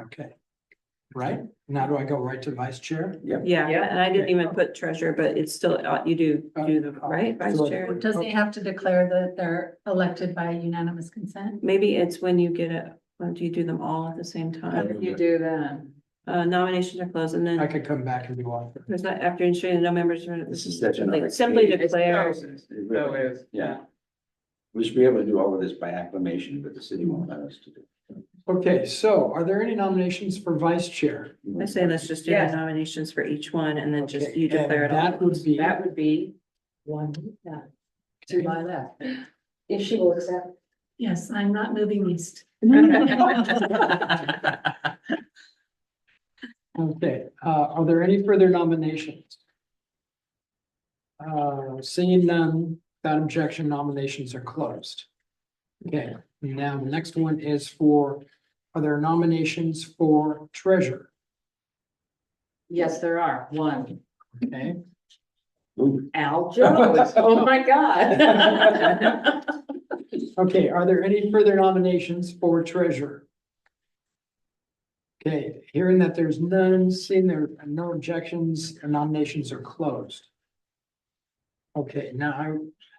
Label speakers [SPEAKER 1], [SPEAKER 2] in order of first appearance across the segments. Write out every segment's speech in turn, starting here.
[SPEAKER 1] Okay. Right, now do I go right to vice chair? Yep.
[SPEAKER 2] Yeah,
[SPEAKER 3] Yeah.
[SPEAKER 2] and I didn't even put treasurer, but it's still, uh, you do, do the,
[SPEAKER 1] uh,
[SPEAKER 2] right, vice chair?
[SPEAKER 4] Does he have to declare that they're elected by unanimous consent?
[SPEAKER 2] Maybe it's when you get it, or do you do them all at the same time?
[SPEAKER 3] You do that.
[SPEAKER 2] Uh, nominations are closed and
[SPEAKER 1] I
[SPEAKER 2] then
[SPEAKER 1] could come back and do all.
[SPEAKER 2] there's not, after ensuring that no members are,
[SPEAKER 5] This is such an.
[SPEAKER 2] like, simply
[SPEAKER 5] archaic-
[SPEAKER 2] declare.
[SPEAKER 5] It
[SPEAKER 3] So
[SPEAKER 5] really-
[SPEAKER 3] is.
[SPEAKER 5] Yeah. We should be able to do all of this by acclamation, but the city won't let us to do.
[SPEAKER 1] Okay, so are there any nominations for vice chair?
[SPEAKER 2] I
[SPEAKER 5] it.
[SPEAKER 2] say let's just do the
[SPEAKER 3] Yes.
[SPEAKER 2] nominations for each one and then just
[SPEAKER 1] Okay,
[SPEAKER 2] you
[SPEAKER 1] and
[SPEAKER 2] declare it all.
[SPEAKER 1] That would be,
[SPEAKER 3] That would be one, yeah, to my left. If she will accept.
[SPEAKER 4] Yes, I'm not moving east.
[SPEAKER 1] okay, uh, are there any further nominations? Uh, seeing none, without objection, nominations are closed. Okay, now the next one is for, are there nominations for treasurer?
[SPEAKER 3] Yes, there are, one,
[SPEAKER 1] Okay,
[SPEAKER 5] Ooh,
[SPEAKER 3] Al Jones, oh my God.
[SPEAKER 1] okay, are there any further nominations for treasurer? Okay, hearing that there's none, seeing there are no objections, nominations are closed. Okay, now I,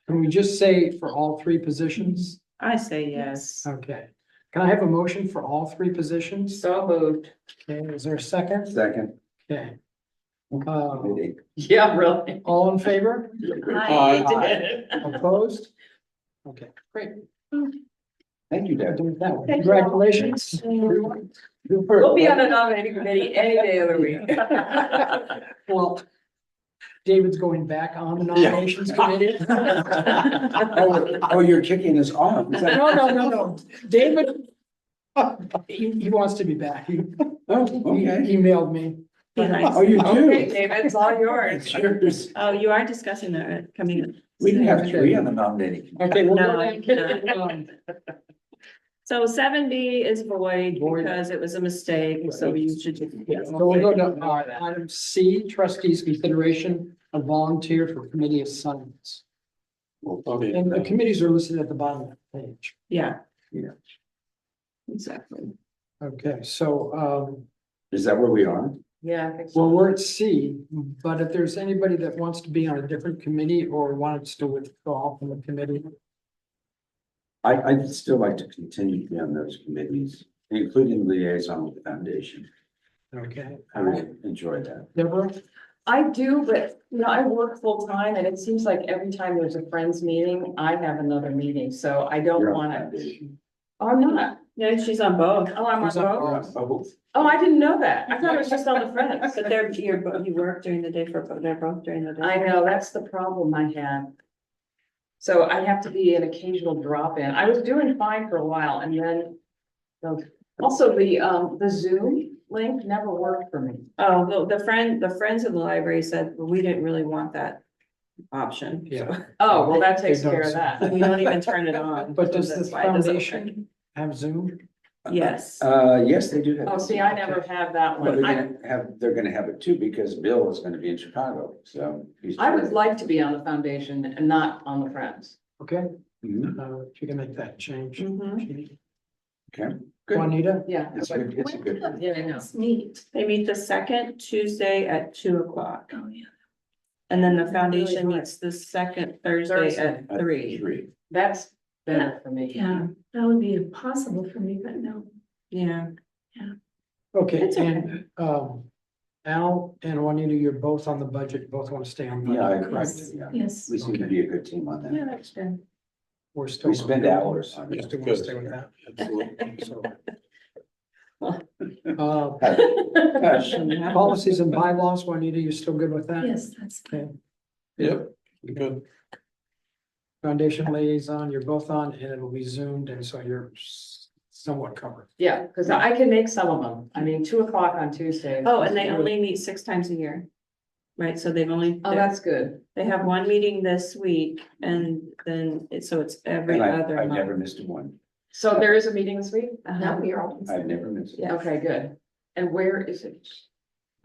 [SPEAKER 1] can we just say for all three positions?
[SPEAKER 2] I say yes.
[SPEAKER 1] Okay, can I have a motion for all three positions?
[SPEAKER 3] So moved.
[SPEAKER 1] Okay, is there a second?
[SPEAKER 5] Second.
[SPEAKER 1] Okay. Uh,
[SPEAKER 3] Yeah, really.
[SPEAKER 1] all in favor?
[SPEAKER 4] Aye.
[SPEAKER 1] Opposed? Okay, great.
[SPEAKER 5] Thank you, Deb.
[SPEAKER 1] Doing it that way.
[SPEAKER 3] Thank you.
[SPEAKER 1] Congratulations. everyone.
[SPEAKER 3] We'll be on the nominating committee any day of the week.
[SPEAKER 1] Well, David's going back on the nominations committee.
[SPEAKER 5] Oh, oh, you're kicking us off. Is that-
[SPEAKER 1] No, no, no, no, David. He, he wants to be back. He
[SPEAKER 5] Oh,
[SPEAKER 1] he
[SPEAKER 5] okay.
[SPEAKER 1] emailed me.
[SPEAKER 2] Be nice.
[SPEAKER 5] Oh, you
[SPEAKER 3] Okay,
[SPEAKER 5] do.
[SPEAKER 3] David, it's all yours.
[SPEAKER 5] Cheers.
[SPEAKER 2] Oh, you are discussing that, right? coming. up.
[SPEAKER 5] We can have three on the nominating. committee.
[SPEAKER 1] Okay. we'll go
[SPEAKER 2] No, I
[SPEAKER 1] ahead.
[SPEAKER 2] So seven B is void
[SPEAKER 1] Void.
[SPEAKER 2] because it was a mistake, so we should. just-
[SPEAKER 1] So we'll go to, uh, item C, trustees consideration of volunteer for committee assignments.
[SPEAKER 5] We'll vote
[SPEAKER 1] And the
[SPEAKER 5] it.
[SPEAKER 1] committees are listed at the bottom of the page.
[SPEAKER 2] Yeah.
[SPEAKER 5] Yeah.
[SPEAKER 2] Exactly.
[SPEAKER 1] Okay, so, um,
[SPEAKER 5] Is that where we are?
[SPEAKER 3] Yeah. I think so.
[SPEAKER 1] Well, we're at C, but if there's anybody that wants to be on a different committee or wants to withdraw from the committee,
[SPEAKER 5] I, I'd still like to continue to be on those committees, including liaison with the foundation.
[SPEAKER 1] okay?
[SPEAKER 5] I would enjoy that.
[SPEAKER 1] Deborah,
[SPEAKER 3] I do, but, you know, I work full-time and it seems like every time there's a friends meeting, I have another meeting, so I
[SPEAKER 5] You're
[SPEAKER 3] don't
[SPEAKER 5] on
[SPEAKER 3] wanna.
[SPEAKER 5] foundation.
[SPEAKER 3] Oh, I'm not.
[SPEAKER 2] No, she's on both,
[SPEAKER 3] Oh, I'm on
[SPEAKER 1] Who's on
[SPEAKER 3] both.
[SPEAKER 5] You're on both.
[SPEAKER 3] Oh, I didn't know that. I thought it was just on the friends.
[SPEAKER 2] but they're, you're, bo- you work during the day for, both. they're both during the day.
[SPEAKER 3] I know, that's the problem I have. So I have to be an occasional drop-in. I was doing fine for a while and then. um, Also, the, um, the Zoom link never worked for me.
[SPEAKER 2] Oh, no, the friend, the friends of the library said, well, we didn't really want that option.
[SPEAKER 1] Yeah.
[SPEAKER 3] Oh, well, that takes
[SPEAKER 1] It don't-
[SPEAKER 3] care of that.
[SPEAKER 2] We don't even turn it on.
[SPEAKER 1] But
[SPEAKER 2] so
[SPEAKER 1] does
[SPEAKER 2] that's
[SPEAKER 1] this
[SPEAKER 2] why it doesn't work.
[SPEAKER 1] foundation have Zoom?
[SPEAKER 2] Yes,
[SPEAKER 5] Uh, yes, they do have.
[SPEAKER 3] Oh, see, I never have that
[SPEAKER 5] But they're
[SPEAKER 3] one. I,
[SPEAKER 5] gonna have, they're gonna have it too, because Bill is gonna be in Chicago, so. he's-
[SPEAKER 3] I would like to be on the foundation and not on the friends.
[SPEAKER 1] Okay,
[SPEAKER 5] Mhm.
[SPEAKER 1] uh, if you can make that change.
[SPEAKER 2] Mhm.
[SPEAKER 5] Okay, good.
[SPEAKER 1] Juanita,
[SPEAKER 3] Yeah.
[SPEAKER 5] It's a, it's a good. one.
[SPEAKER 3] Yeah, I know.
[SPEAKER 4] Neat.
[SPEAKER 2] they meet the second Tuesday at two o'clock,
[SPEAKER 4] Oh, yeah.
[SPEAKER 2] and then the foundation meets the second Thursday at
[SPEAKER 5] At
[SPEAKER 2] three.
[SPEAKER 5] Uh, Three.
[SPEAKER 3] That's better for me.
[SPEAKER 4] Yeah, that would be impossible for me, but no.
[SPEAKER 2] Yeah.
[SPEAKER 1] okay,
[SPEAKER 2] It's okay.
[SPEAKER 1] and, um, Al and Juanita, you're both on the budget, both want to stay on.
[SPEAKER 5] Yeah, I
[SPEAKER 1] budget.
[SPEAKER 5] correct, yeah.
[SPEAKER 4] Yes.
[SPEAKER 5] We seem to be a good team on that.
[SPEAKER 2] that's good.
[SPEAKER 1] We're still.
[SPEAKER 5] We spend hours on
[SPEAKER 1] We
[SPEAKER 5] it.
[SPEAKER 1] still want to stay with that. So, Uh,
[SPEAKER 5] Hush.
[SPEAKER 1] policies and bylaws, Juanita, you still good with that?
[SPEAKER 4] Yes, that's
[SPEAKER 1] Okay.
[SPEAKER 6] Yep, good.
[SPEAKER 1] Foundation liaison, you're both on, and it'll be zoomed, and so you're somewhat covered.
[SPEAKER 3] Yeah, because I can make some of them. I mean, two o'clock on Tuesday.
[SPEAKER 2] Oh, and they only meet six times a year. Right, so they've only,
[SPEAKER 3] Oh, that's good.
[SPEAKER 2] they have one meeting this week and then it, so it's every
[SPEAKER 5] And I,
[SPEAKER 2] other
[SPEAKER 5] I've never
[SPEAKER 2] month.
[SPEAKER 5] missed one.
[SPEAKER 3] So there is a meeting this week?
[SPEAKER 4] Now
[SPEAKER 2] Uh-huh.
[SPEAKER 4] we are all.
[SPEAKER 5] I've never missed. it.
[SPEAKER 2] Yeah.
[SPEAKER 3] Okay, good. And where is it?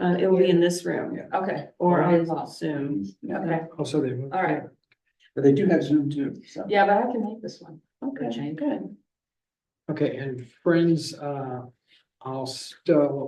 [SPEAKER 2] Uh, it will be in this room
[SPEAKER 5] Yeah.
[SPEAKER 3] Okay,
[SPEAKER 2] or
[SPEAKER 3] Okay.
[SPEAKER 2] on Zoom.
[SPEAKER 5] Yeah,
[SPEAKER 3] okay.
[SPEAKER 1] Also, they. moved
[SPEAKER 3] All right.
[SPEAKER 1] it.
[SPEAKER 5] but they do have Zoom too, so.
[SPEAKER 3] Yeah, but I can make this one.
[SPEAKER 2] Okay,
[SPEAKER 3] Change.
[SPEAKER 2] good.
[SPEAKER 1] Okay, and friends, uh, I'll still